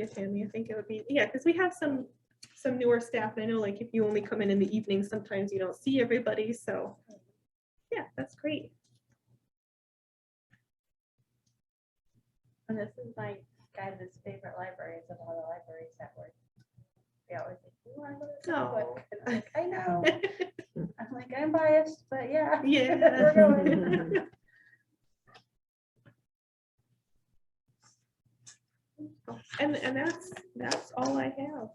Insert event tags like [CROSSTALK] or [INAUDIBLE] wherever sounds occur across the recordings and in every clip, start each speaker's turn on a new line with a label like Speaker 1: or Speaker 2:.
Speaker 1: Yeah, Tammy, I think it would be, yeah, because we have some, some newer staff, and I know like if you only come in in the evening, sometimes you don't see everybody, so. Yeah, that's great.
Speaker 2: And this is my guy, his favorite library is of all the libraries that work. They always like, you want to go to the book? And I'm like, I know.
Speaker 1: [LAUGHS]
Speaker 2: I'm like, I'm biased, but yeah. [LAUGHS]
Speaker 1: Yeah.
Speaker 2: We're going.
Speaker 1: [LAUGHS] And, and that's, that's all I have.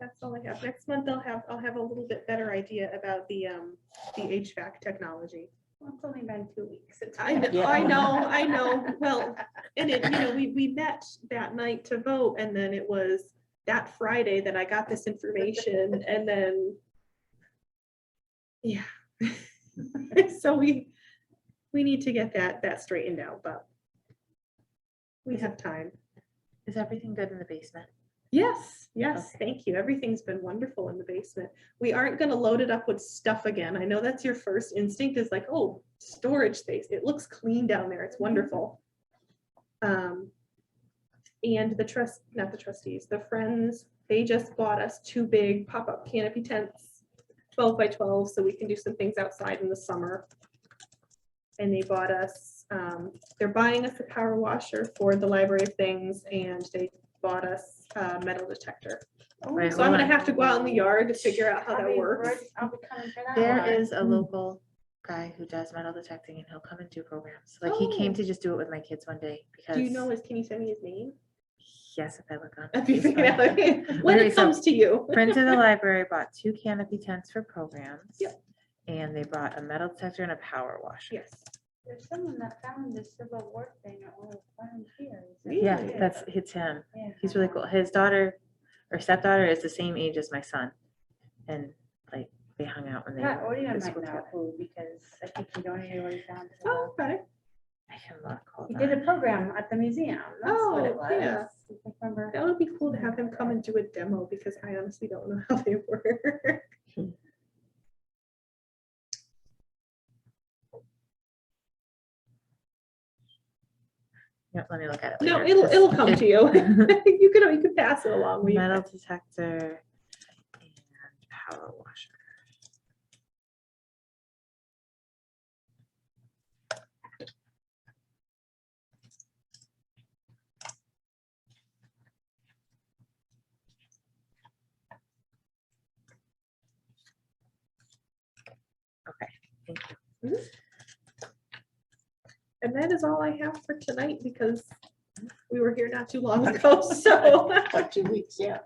Speaker 1: That's all I have. Next month I'll have, I'll have a little bit better idea about the, um, the HVAC technology.
Speaker 2: Well, It's only been two weeks. It's
Speaker 1: I know,
Speaker 2: fine.
Speaker 1: I know, I
Speaker 2: [LAUGHS]
Speaker 1: know. Well, and it, you know, we, we met that night to vote and then it was that Friday that I got this information and then, yeah. [LAUGHS] So we, we need to get that, that straightened out, but we have time.
Speaker 3: Is everything good in the basement?
Speaker 1: Yes, yes, thank you. Everything's been wonderful in the basement. We aren't gonna load it up with stuff again. I know that's your first instinct is like, oh, storage space. It looks clean down there. It's wonderful. Um, and the trust, not the trustees, the friends, they just bought us two big pop-up canopy tents, twelve by twelve, so we can do some things outside in the summer. And they bought us, um, they're buying us a power washer for the library of things and they bought us a metal detector.
Speaker 3: Right,
Speaker 1: So I'm
Speaker 3: well,
Speaker 1: gonna have to go out in the yard to figure out how
Speaker 2: I'll
Speaker 1: that
Speaker 2: be-
Speaker 1: works.
Speaker 2: I'll be coming for that
Speaker 3: There
Speaker 2: one.
Speaker 3: is a
Speaker 1: Mm.
Speaker 3: local guy who does metal detecting and he'll come and do programs. Like he came
Speaker 1: Oh.
Speaker 3: to just do it with my kids one day because.
Speaker 1: Do you know, his? can you send me his name?
Speaker 3: Yes, if I look on.
Speaker 1: [LAUGHS] If you
Speaker 3: Facebook.
Speaker 1: figure it out. [LAUGHS] When
Speaker 3: Okay,
Speaker 1: it
Speaker 3: so-
Speaker 1: comes to you.
Speaker 3: [LAUGHS] Friends of the library bought two canopy tents for programs.
Speaker 1: Yep.
Speaker 3: And they brought a metal detector and a power washer.
Speaker 1: Yes.
Speaker 2: There's someone that found this Civil War thing at one of the volunteers.
Speaker 3: Yeah,
Speaker 1: Really?
Speaker 3: that's, it's him.
Speaker 2: Yeah.
Speaker 3: He's really cool. His daughter or stepdaughter is the same age as my son. And like they hung out when they.
Speaker 2: Pat
Speaker 3: were
Speaker 2: Odia
Speaker 3: in
Speaker 2: might
Speaker 3: school
Speaker 2: know
Speaker 3: together.
Speaker 2: who, because I think he donated what he found. to the-
Speaker 1: Oh, okay.
Speaker 3: I can look. hold
Speaker 2: He
Speaker 3: on.
Speaker 2: did a program at the museum. That's what it
Speaker 1: Oh, yeah.
Speaker 2: was. I Remember?
Speaker 1: That would be cool to have him come and do a demo because I honestly don't know [LAUGHS] how they work.
Speaker 3: Hmm. Yep, let me look at it.
Speaker 1: No,
Speaker 3: later,
Speaker 1: it'll,
Speaker 3: 'cause-
Speaker 1: it'll come to you. [LAUGHS] You could, you could pass it along. We-
Speaker 3: Metal detector and power washer. Okay, thank you.
Speaker 1: And that is all I have for tonight because we were here not too
Speaker 3: [LAUGHS]
Speaker 1: long ago, so.
Speaker 4: About two weeks, yeah.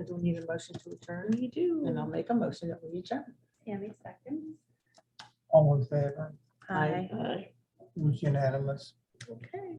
Speaker 4: I don't need a motion to adjourn,
Speaker 1: We do.
Speaker 4: and I'll make a motion that we adjourn.
Speaker 2: Tammy seconds.
Speaker 5: All in favor,
Speaker 3: Hi.
Speaker 4: Aye.
Speaker 5: it was unanimous.
Speaker 1: Okay.